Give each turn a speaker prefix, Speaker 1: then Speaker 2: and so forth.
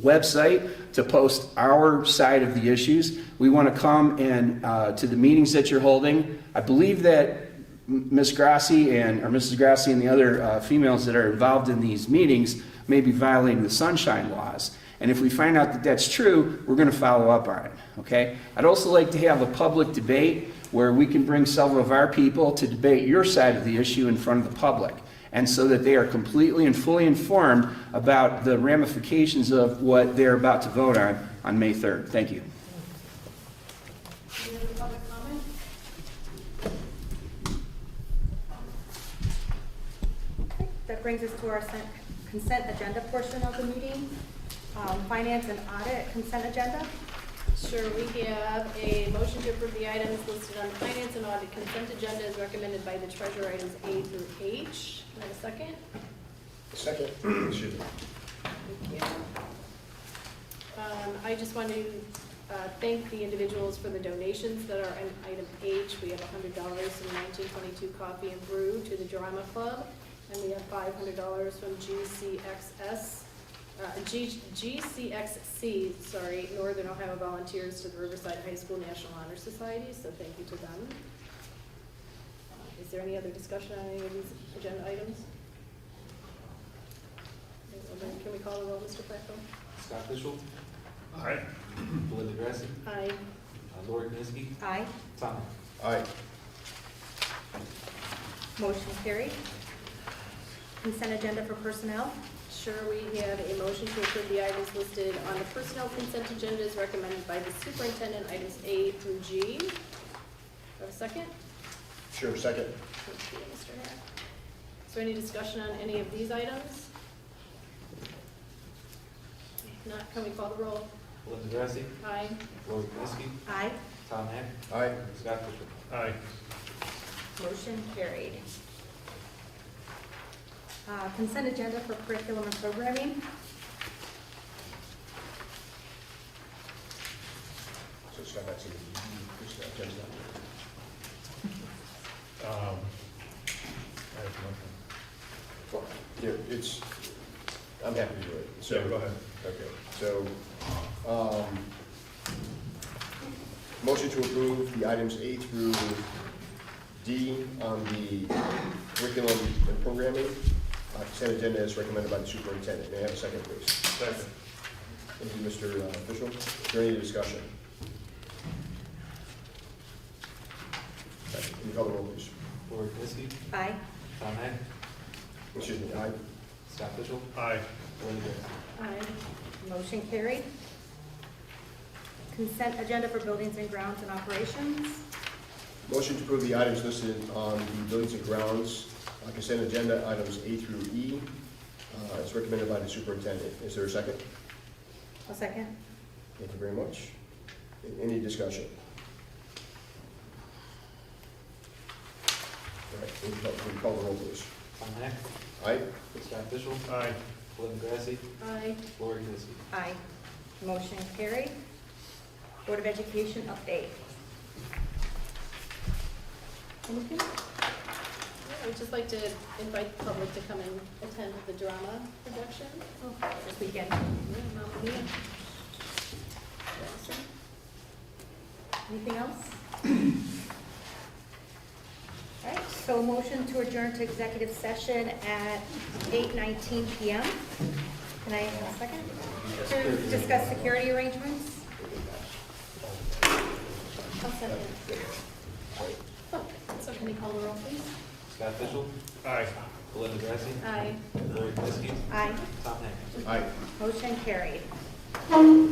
Speaker 1: website to post our side of the issues. We want to come and, uh, to the meetings that you're holding. I believe that M- Ms. Grassi and, or Mrs. Grassi and the other uh, females that are involved in these meetings may be violating the sunshine laws. And if we find out that that's true, we're going to follow up on it, okay? I'd also like to have a public debate where we can bring several of our people to debate your side of the issue in front of the public and so that they are completely and fully informed about the ramifications of what they're about to vote on on May 3rd. Thank you.
Speaker 2: Any other public comment? That brings us to our sen- consent agenda portion of the meeting. Um, Finance and audit consent agenda.
Speaker 3: Sure, we have a motion to approve the items listed on the finance and audit consent agenda as recommended by the treasurer items A through H. Can I have a second?
Speaker 4: Second. Excuse me.
Speaker 3: Thank you. Um, I just want to uh, thank the individuals for the donations that are in item H. We have hundred dollars from nineteen twenty-two Coffee and Brew to the Drama Club, and we have five hundred dollars from GCXS, uh, G- GCXC, sorry, Northern Ohio Volunteers to the Riverside High School National Honor Society, so thank you to them. Uh, Is there any other discussion on any of these agenda items? Can we call the roll, Mr. Placco?
Speaker 5: Scott Fishel,
Speaker 4: Aye.
Speaker 5: Belinda Grassi,
Speaker 3: Aye.
Speaker 5: uh, Lori Knessky,
Speaker 2: Aye.
Speaker 5: Tom Heck.
Speaker 4: Aye.
Speaker 2: Motion carried. Consent agenda for personnel.
Speaker 3: Sure, we have a motion to approve the items listed on the personnel consent agenda as recommended by the superintendent, items A through G. Do I Have a second?
Speaker 4: Sure, second.
Speaker 3: Thank you, Mr. Hare. Is there any discussion on any of these items? If not, can we call the roll?
Speaker 5: Belinda Grassi,
Speaker 3: Aye.
Speaker 5: Lori Knessky,
Speaker 2: Aye.
Speaker 5: Tom Heck,
Speaker 4: Aye.
Speaker 5: Scott Fishel.
Speaker 4: Aye.
Speaker 2: Motion carried. Uh, Consent agenda for curriculum and programming.
Speaker 4: So Scott, that's you. Just, uh, just, uh,
Speaker 6: Um, I have nothing.
Speaker 4: well, Here, it's, I'm happy to do it. So-
Speaker 6: Yeah, go ahead.
Speaker 4: Okay, so, um, motion to approve the items A through D on the curriculum and programming, uh, consent agenda as recommended by the superintendent. May I have a second, please?
Speaker 6: Second.
Speaker 4: Thank you, Mr. Official. Is there any discussion? Can you call the roll, please?
Speaker 5: Lori Knessky,
Speaker 2: Aye.
Speaker 5: Tom Heck,
Speaker 4: Excuse me, aye?
Speaker 5: Scott Fishel,
Speaker 6: Aye.
Speaker 5: Belinda Grassi.
Speaker 3: Aye.
Speaker 2: Motion carried. Consent agenda for buildings and grounds and operations.
Speaker 4: Motion to approve the items listed on the Buildings and Grounds uh, consent agenda, items A through E, uh, as recommended by the superintendent. Is there a second?
Speaker 2: A second.
Speaker 4: Thank you very much. Any discussion? All right, can you call- can you call the roll, please?
Speaker 5: Tom Heck,
Speaker 4: Aye?
Speaker 5: Scott Fishel,
Speaker 6: Aye.
Speaker 5: Belinda Grassi,
Speaker 3: Aye.
Speaker 5: Lori Knessky.
Speaker 2: Aye. Motion carried. Board of Education update. Anything?
Speaker 3: I would just like to invite the public to come and attend the drama production.
Speaker 2: Oh, This weekend.
Speaker 3: Mamma Mia.
Speaker 2: Anything else? All right, so motion to adjourn to executive session at 8:19 PM. Can I have a second? To discuss security arrangements?
Speaker 3: I'll second. So can we call the roll, please?
Speaker 5: Scott Fishel,
Speaker 6: Aye.
Speaker 5: Belinda Grassi,
Speaker 3: Aye.
Speaker 5: Lori Knessky,
Speaker 2: Aye.
Speaker 5: Tom Heck.
Speaker 4: Aye.
Speaker 2: Motion carried.